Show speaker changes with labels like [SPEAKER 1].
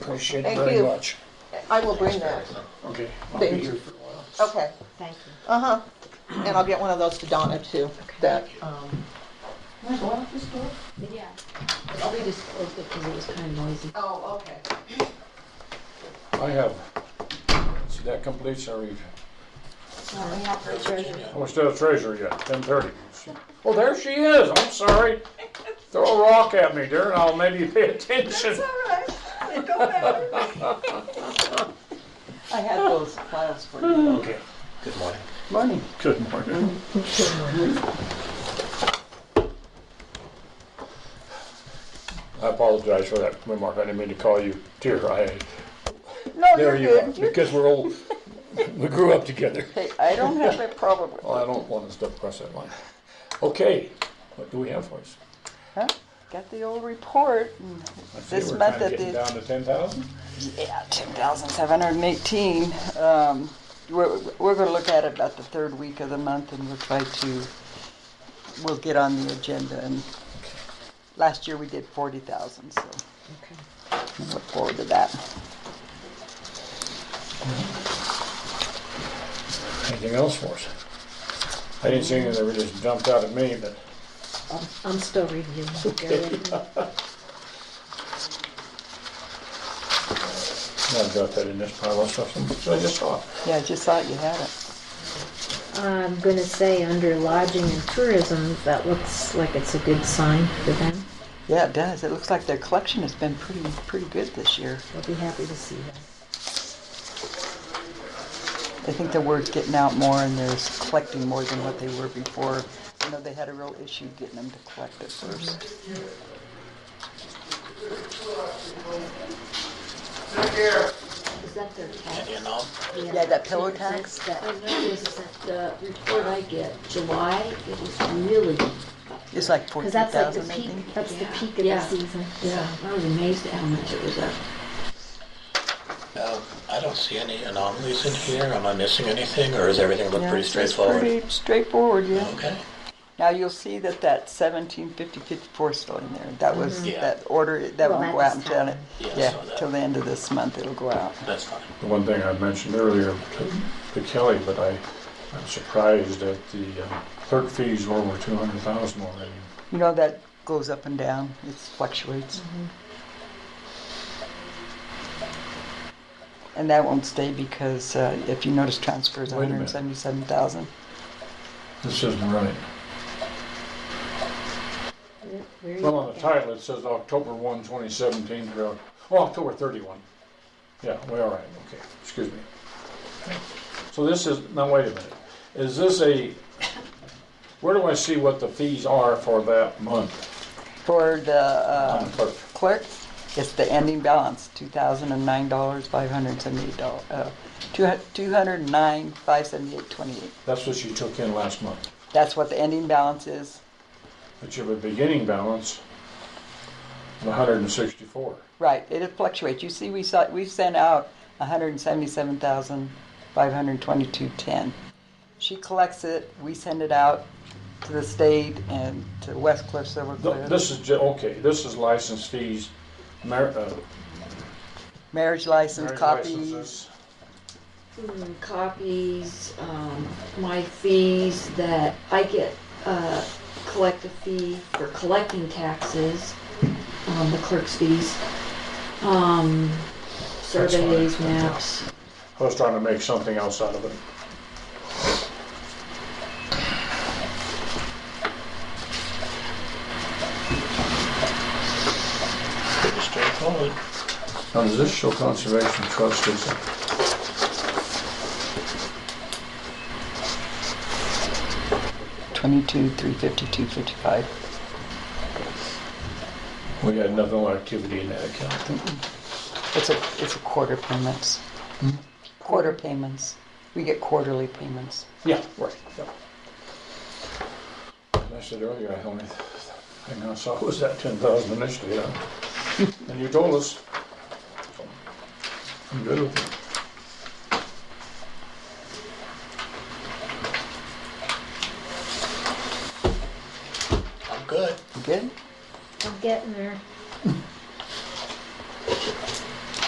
[SPEAKER 1] appreciate it
[SPEAKER 2] Thank
[SPEAKER 1] very
[SPEAKER 2] you.
[SPEAKER 1] much.
[SPEAKER 2] I will bring that.
[SPEAKER 1] Okay, I'll
[SPEAKER 2] Thank
[SPEAKER 1] be
[SPEAKER 2] you.
[SPEAKER 1] here for a while.
[SPEAKER 2] Okay,
[SPEAKER 3] Thank you.
[SPEAKER 2] uh-huh. And I'll get one of those to Donna too, that, um.
[SPEAKER 3] Yeah. We disclosed it because it was kind of noisy.
[SPEAKER 2] Oh, okay.
[SPEAKER 4] I have. See, that completes our review. Oh, we still have treasurer yet, ten thirty. Oh, there she is, I'm sorry. Throw a rock at me, dear, and I'll maybe pay attention.
[SPEAKER 2] I had those files for you.
[SPEAKER 4] Okay.
[SPEAKER 5] Good morning.
[SPEAKER 4] Money.
[SPEAKER 5] Good morning.
[SPEAKER 4] I apologize for that remark, I didn't mean to call you dear, I,
[SPEAKER 2] No,
[SPEAKER 4] there
[SPEAKER 2] you're
[SPEAKER 4] you are,
[SPEAKER 2] good.
[SPEAKER 4] because we're old, we grew up together.
[SPEAKER 2] Hey, I don't have a problem with
[SPEAKER 4] Well, I don't want to step across that line. Okay, what do we have for us?
[SPEAKER 2] Huh? Got the old report. and
[SPEAKER 4] I see
[SPEAKER 2] This
[SPEAKER 4] we're
[SPEAKER 2] month
[SPEAKER 4] kinda
[SPEAKER 2] at
[SPEAKER 4] getting
[SPEAKER 2] the-
[SPEAKER 4] Down to ten thousand?
[SPEAKER 2] Yeah, ten thousand seven hundred and eighteen. Um, we're, we're gonna look at it about the third week of the month and we'll try to, we'll get on the agenda and last year we did forty thousand, so we'll look forward to that.
[SPEAKER 4] Anything else for us? I didn't see anything that really just jumped out at me, but
[SPEAKER 3] I'm still reviewing. Okay.
[SPEAKER 4] I've got that in this pile of stuff, so I just saw it.
[SPEAKER 2] Yeah, I just thought you had it.
[SPEAKER 3] I'm gonna say under lodging and tourism, that looks like it's a good sign for them.
[SPEAKER 2] Yeah, it does. It looks like their collection has been pretty, pretty good this year.
[SPEAKER 3] They'll be happy to see that.
[SPEAKER 2] I think the word's getting out more and they're collecting more than what they were before. I know they had a real issue getting them to collect at first.
[SPEAKER 3] Is that their tax?
[SPEAKER 5] You know,
[SPEAKER 2] Yeah, that pillow tax.
[SPEAKER 3] That's that, I noticed that the report I get, July, it was really,
[SPEAKER 2] It's like forty
[SPEAKER 3] because that's like the
[SPEAKER 2] thousand, I
[SPEAKER 3] peak,
[SPEAKER 2] think.
[SPEAKER 3] that's the peak of the season. Yeah, I was amazed at how much it was up.
[SPEAKER 5] uh, I don't see any anomalies in here. Am I missing anything, or is everything look
[SPEAKER 2] Yeah,
[SPEAKER 5] pretty
[SPEAKER 2] it's
[SPEAKER 5] straightforward?
[SPEAKER 2] Pretty straightforward, yeah.
[SPEAKER 5] Okay.
[SPEAKER 2] Now you'll see that that seventeen fifty fifty-four is still in there. That was,
[SPEAKER 5] Mhm. Yeah.
[SPEAKER 2] that order, that
[SPEAKER 3] Mm-hmm. Well,
[SPEAKER 2] will
[SPEAKER 3] that
[SPEAKER 2] go out
[SPEAKER 3] just
[SPEAKER 2] until, it-
[SPEAKER 3] happened.
[SPEAKER 5] Yeah, I
[SPEAKER 2] yeah,
[SPEAKER 5] saw that.
[SPEAKER 2] till the end of this month it'll go out.
[SPEAKER 5] That's fine.
[SPEAKER 4] The one thing I mentioned earlier to- to Kelly, but I, I'm surprised that the uh, clerk fees were over two hundred thousand already.
[SPEAKER 2] You know, that goes up and down, it fluctuates.
[SPEAKER 3] Mm-hmm.
[SPEAKER 2] And that won't stay because uh, if you notice transfers,
[SPEAKER 4] Wait a
[SPEAKER 2] hundred and
[SPEAKER 4] minute.
[SPEAKER 2] seventy-seven thousand.
[SPEAKER 4] This isn't right.
[SPEAKER 3] Where are you
[SPEAKER 4] Well, on the
[SPEAKER 3] looking?
[SPEAKER 4] title, it says October one, twenty seventeen, through, oh, October thirty-one. Yeah, we all right, okay, excuse me. So this is, now wait a minute, is this a, where do I see what the fees are for that month
[SPEAKER 2] For the
[SPEAKER 4] on
[SPEAKER 2] uh,
[SPEAKER 4] the clerk?
[SPEAKER 2] clerk, it's the ending balance, two thousand and nine dollars, five hundred and seventy-eight dollars, uh, two hundred and nine, five seventy-eight, twenty-eight.
[SPEAKER 4] That's what you took in last month,
[SPEAKER 2] That's what the ending balance is,
[SPEAKER 4] but you have a beginning balance of hundred and sixty-four.
[SPEAKER 2] right, it fluctuates, you see, we saw, we sent out a hundred and seventy-seven thousand, five hundred and twenty-two, ten. She collects it, we send it out to the state and to West Cliff, Silver
[SPEAKER 4] Th- This
[SPEAKER 2] Cliff,
[SPEAKER 4] is, ju- okay, this is license fees, mar- uh,
[SPEAKER 2] marriage license
[SPEAKER 4] marriage
[SPEAKER 2] copies.
[SPEAKER 4] licenses.
[SPEAKER 3] Mm, copies, um, my fees that I get, uh, collect a fee for collecting taxes, um, the clerk's fees, um, surveys, maps.
[SPEAKER 4] I was trying to make something else out of it.
[SPEAKER 5] Pretty straightforward.
[SPEAKER 4] Now, does this show conservation trust is,
[SPEAKER 2] Twenty-two, three fifty-two, fifty-five.
[SPEAKER 4] we had nothing on activity in that account.
[SPEAKER 2] It's a, it's a quarter payments. Quarter payments. We get quarterly payments.
[SPEAKER 4] Yeah, right. yeah. As I said earlier, I only, I now saw was that ten thousand initially, yeah. And you told us. I'm good with it.
[SPEAKER 5] I'm good.
[SPEAKER 2] You good?
[SPEAKER 6] I'm getting there.